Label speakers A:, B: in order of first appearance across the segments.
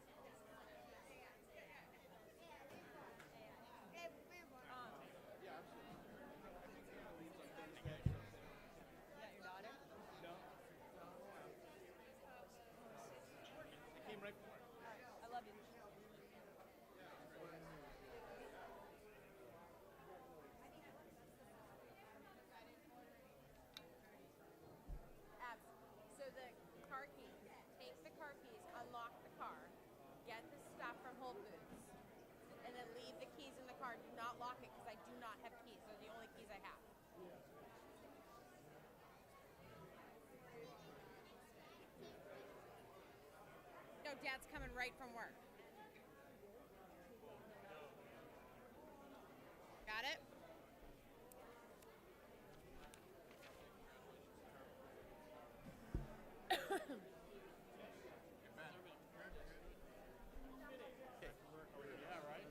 A: um, car. Do not lock it because I do not have keys. They're the only keys I have. No, Dad's coming right from work. Got it?
B: Yeah, right?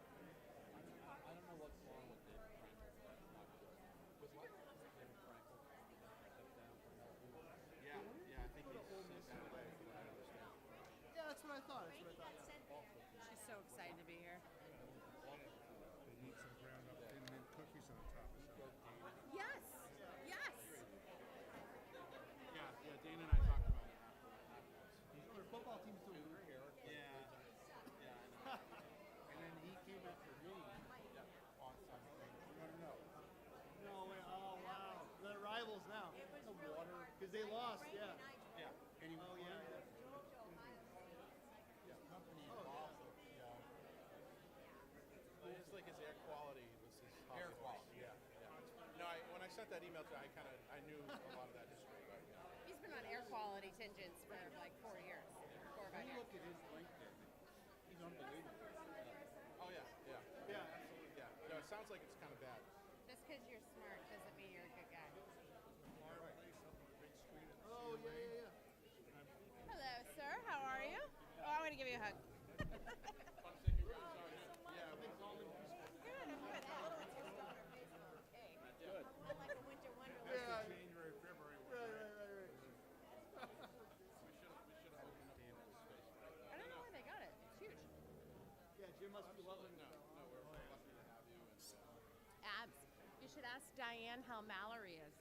C: I don't know what's wrong with David Frankel. With what? David Frankel. Step down from that.
B: Yeah, yeah, I think he's so bad. I don't understand.
D: Yeah, that's what I thought. That's what I thought.
A: She's so excited to be here.
E: They need some ground up thin mint cookies on the top or something.
A: Yes! Yes!
B: Yeah, yeah, Dana and I talked about it.
D: Yeah. Their football team's doing great.
B: Yeah, yeah, I know. And then he came after me on something. No, no, no.
D: No way. Oh wow. They're rivals now. The water because they lost. Yeah.
B: Yeah. And he was
D: Oh
B: one
D: yeah.
B: of the company in Boston, yeah. Well, It's like his air quality was his. Air quality, yeah, yeah. No, I, when I sent that email to, I kind of, I knew a lot of that history, but, yeah.
A: He's been on air quality tangents for like four years. Four or five
C: When you
A: years.
C: look at his LinkedIn, he's unbelievable.
B: Oh, yeah, yeah,
D: Yeah.
B: yeah. No, it sounds like it's kind of bad.
A: Just because you're smart doesn't mean you're a good guy.
D: Oh yeah yeah yeah.
A: Hello, sir. How are you? Oh, I'm going to give you a hug.
B: Yeah,
A: Good, I'm good. A little tear down her face, but okay.
F: More like a winter wonderland.
D: Yeah.
E: January, February. when
D: Right right right right.
A: I don't know where they got it. It's huge.
D: Yeah. Jim must be loving it.
A: Abs. You should ask Diane how Mallory is.
B: uh,